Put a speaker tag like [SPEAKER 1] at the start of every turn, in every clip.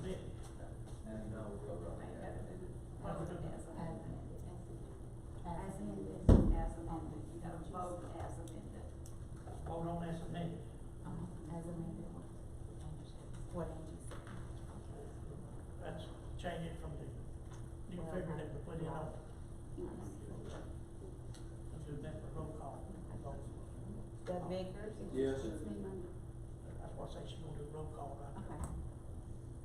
[SPEAKER 1] And no, we will
[SPEAKER 2] I
[SPEAKER 1] not have
[SPEAKER 2] have
[SPEAKER 1] it.
[SPEAKER 2] voted as amended.
[SPEAKER 3] As amended.
[SPEAKER 2] As amended, you gotta vote as amended.
[SPEAKER 4] Vote on as amended.
[SPEAKER 3] Uh-huh, As amended. What Angie said.
[SPEAKER 4] Let's change it from the new figure that we put in on, and do that for roll call. vote.
[SPEAKER 3] Doug Bickers?
[SPEAKER 1] Yes.
[SPEAKER 3] Excuse me, ma'am.
[SPEAKER 4] That's why I say she's gonna do roll call right
[SPEAKER 3] Okay.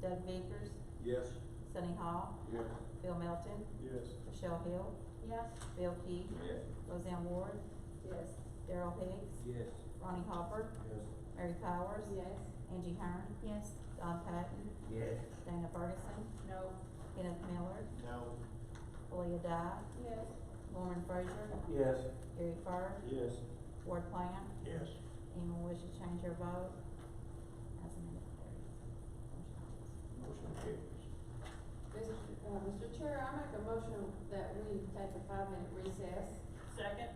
[SPEAKER 3] Doug Bickers,
[SPEAKER 1] Yes.
[SPEAKER 3] Sunny Hall,
[SPEAKER 1] Yes.
[SPEAKER 3] Phil Melton,
[SPEAKER 1] Yes.
[SPEAKER 3] Michelle Hill,
[SPEAKER 2] Yes.
[SPEAKER 3] Bill Key,
[SPEAKER 1] Yes.
[SPEAKER 3] Roseanne Ward,
[SPEAKER 2] Yes.
[SPEAKER 3] Daryl Hicks,
[SPEAKER 1] Yes.
[SPEAKER 3] Ronnie Hopper,
[SPEAKER 1] Yes.
[SPEAKER 3] Mary Powers,
[SPEAKER 2] Yes.
[SPEAKER 3] Angie Hearn,
[SPEAKER 2] Yes.
[SPEAKER 3] Don Patton,
[SPEAKER 1] Yes.
[SPEAKER 3] Dana Ferguson,
[SPEAKER 2] No.
[SPEAKER 3] Kenneth Miller,
[SPEAKER 1] No.
[SPEAKER 3] Leah Dyke,
[SPEAKER 2] Yes.
[SPEAKER 3] Lauren Frazier,
[SPEAKER 1] Yes.
[SPEAKER 3] Gary Fur,
[SPEAKER 1] Yes.
[SPEAKER 3] Ward Plan,
[SPEAKER 4] now. Yes,
[SPEAKER 3] anyone wish to change their vote? As amended, carries.
[SPEAKER 4] motion carries.
[SPEAKER 5] Mr. Uh, Mr. Chair, I make a motion that we take a five-minute recess.
[SPEAKER 2] Second?